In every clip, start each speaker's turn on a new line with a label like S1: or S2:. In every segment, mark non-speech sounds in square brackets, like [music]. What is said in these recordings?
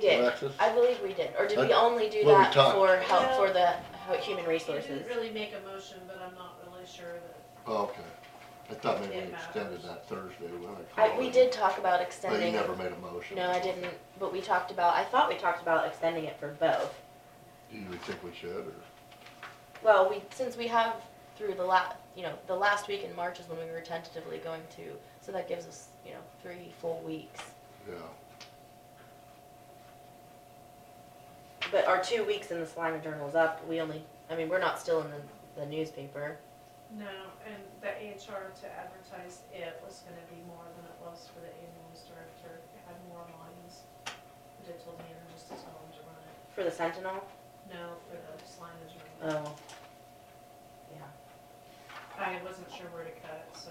S1: did.
S2: Alexis?
S1: I believe we did. Or did we
S2: I-
S1: only do
S2: well, we
S1: that
S2: talked.
S1: for help
S3: No.
S1: for the hu- human
S3: You didn't
S1: resources?
S3: really make a motion, but I'm not really sure that,
S2: Oh, okay. I thought maybe we
S3: It
S2: extended
S3: matters.
S2: that Thursday when I
S1: I,
S2: called.
S1: we
S2: in.
S1: did talk about
S2: But you
S1: extending.
S2: never made a motion.
S1: No, I didn't, but we talked about, I thought we talked about extending it for both.
S2: Do you think we should, or?
S1: Well, we, since we have through the la, you know, the last week in March is when we were tentatively going to, so that gives us, you know, three full weeks.
S2: Yeah,
S1: But our two weeks in the Salina Journal is up, we only, I mean, we're not still in the, the newspaper.
S3: no, and the HR to advertise it was gonna be more than it was for the ambulance director, it had more lines. But it told me just to tell them to run it,
S1: For the Sentinel?
S3: no, for the signage room.
S1: Oh. Yeah.
S3: I wasn't sure where to cut it, so.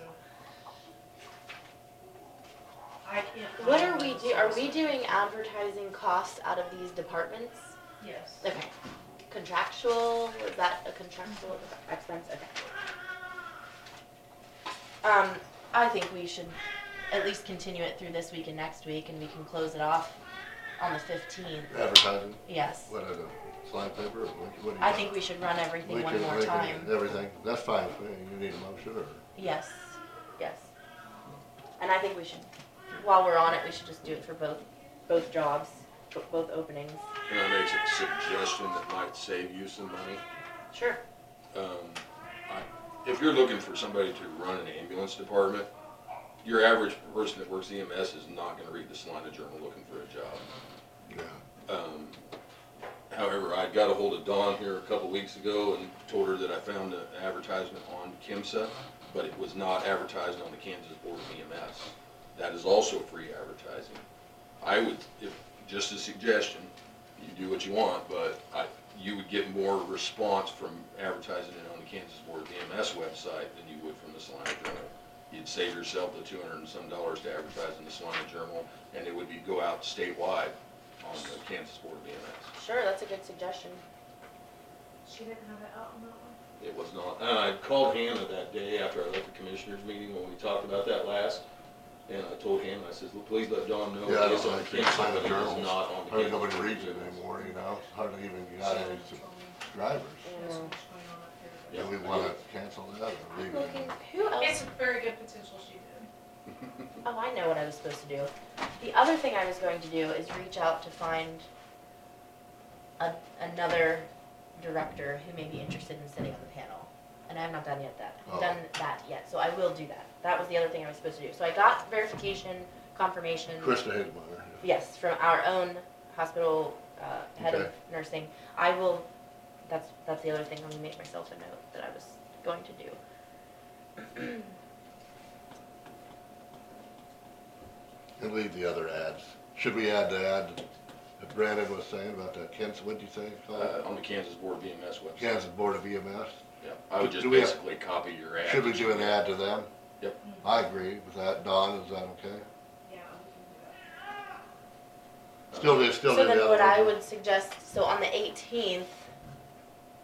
S3: I can't. find
S1: What are we
S3: those
S1: do, are we
S3: sources.
S1: doing advertising costs out of these departments?
S3: Yes,
S1: Okay. Contractual, is that a contractual expense? Okay. Um, I think we should at least continue it through this week and next week and we can close it off on the fifteenth,
S2: advertising,
S1: yes.
S2: what, is it, slide paper, or what what do you?
S1: I think we should run everything
S2: We
S1: one
S2: can-
S1: more
S2: we can-
S1: time.
S2: Everything, that's fine, with me. you need a motion, or,
S1: Yes, yes. And I think we should, while we're on it, we should just do it for both, both jobs, bo- both openings.
S4: Can I make a suggestion that might save you some money?
S1: Sure.
S4: Um, I- If you're looking for somebody to run an ambulance department, your average person that works EMS is not gonna read the Salina Journal looking for a job.
S2: yeah,
S4: Um, However, I got a hold of Dawn here a couple weeks ago and told her that I found an advertisement on KIMSA, but it was not advertised on the Kansas Board of EMS. That is also free advertising. I would, if, just a suggestion, you do what you want, but I, you would get more response from advertising it on the Kansas Board of EMS website than you would from the Salina Journal. You'd save yourself the two hundred and some dollars to advertise in the Salina Journal, and it would be go out statewide on the Kansas Board of EMS.
S1: Sure, that's a good suggestion.
S3: she didn't have it out on that one.
S4: It was not, and I called Hannah that day after I left the commissioners meeting when we talked about that last, and I told Hannah, I says, "Well, please let Dawn know.
S2: Yeah, I don't
S4: it's on
S2: think you
S4: Kansas,
S2: sign the
S4: but it is
S2: journals.
S4: not
S2: I
S4: on the
S2: think
S4: Kansas
S2: nobody
S4: Board of
S2: reads it
S4: EMS."
S2: anymore, you know, hardly even got
S3: She
S2: any
S3: didn't tell me.
S2: drivers.
S3: There's so much going on up here, but-
S2: Do we wanna cancel that or leave it?
S1: Looking, who else?
S3: It's a very good potential she did.
S1: Oh, I know what I was supposed to do. The other thing I was going to do is reach out to find a, another director who may be interested in sitting on the panel. And I have not done yet that,
S2: Oh.
S1: done that yet, so I will do that. That was the other thing I was supposed to do. So I got verification, confirmation.
S2: Krista Hidmeyer,
S1: Yes, from our own hospital, uh, head of
S2: Okay.
S1: nursing. I will, that's, that's the other thing, I'm gonna make myself a note that I was going to do.
S2: and leave the other ads. Should we add the ad that Brandon was saying about that Kansas, what'd you say? it's called?
S4: [laughs] Uh, on the Kansas Board of EMS website.
S2: Kansas Board of EMS?
S4: Yeah, I would just
S2: Do we have-
S4: basically copy your ad.
S2: Should we do an ad to them?
S4: Yep.
S2: I agree with that. Don, is that okay?
S3: Yeah, we can do that.
S4: Uh,
S2: Still, do- still
S1: So
S2: do the
S1: then
S2: other
S1: what I
S2: one.
S1: would suggest, so on the eighteenth,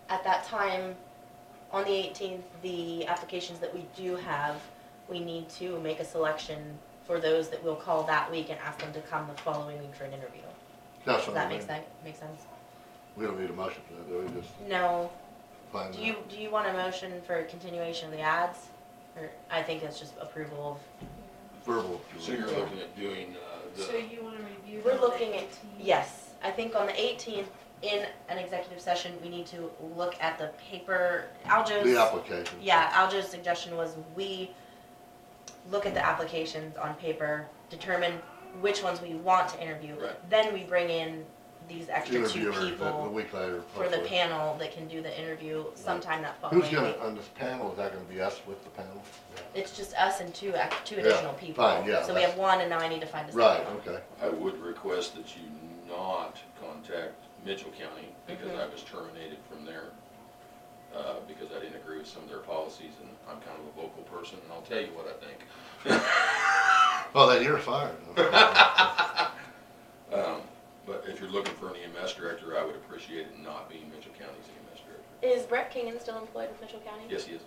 S1: at that time, on the eighteenth, the applications that we do have, we need to make a selection for those that we'll call that week and ask them to come the following week for an interview.
S2: That's
S1: Does
S2: what I
S1: that make
S2: mean.
S1: sense, make sense?
S2: We don't need a motion for that, do we? Just
S1: No,
S2: find
S1: do you,
S2: that.
S1: do you want a motion for continuation of the ads? Or, I think it's just approval
S2: Verbal.
S4: So you're looking at doing, uh,
S3: So
S4: the,
S3: you wanna review
S1: We're
S3: that on the
S1: looking at-
S3: 18th?
S1: of, yes, I think on the eighteenth, in an executive session, we need to look at the paper, Aljo's.
S2: The application.
S1: Yeah, Aljo's suggestion was we look at the applications on paper, determine which ones we want to interview.
S4: Right.
S1: Then we bring in these extra two
S2: Interviewer, the the
S1: people
S2: week later.
S1: for the
S2: hopefully.
S1: panel that can do the interview sometime that following
S2: Who's
S1: week.
S2: gonna, on this panel, is that gonna be us with the panel?
S1: It's just us and two, ac- two
S2: Yeah,
S1: additional people.
S2: fine, yeah,
S1: So we
S2: that's-
S1: have one and now I need to find a second
S2: Right,
S1: one.
S2: okay.
S4: I would request that you not contact Mitchell County because
S1: Mhm.
S4: I was terminated from there. Uh, because I didn't agree with some of their policies and I'm kind of a vocal person and I'll tell you what I think.
S2: Well, then you're fired.
S4: [laughs]
S2: [laughs] Okay.
S1: [laughs]
S4: Um, but if you're looking for an E EMS director, I would appreciate it not being Mitchell County's EMS director.
S1: Is Brett Kingan still employed with Mitchell County?
S4: Yes, he is.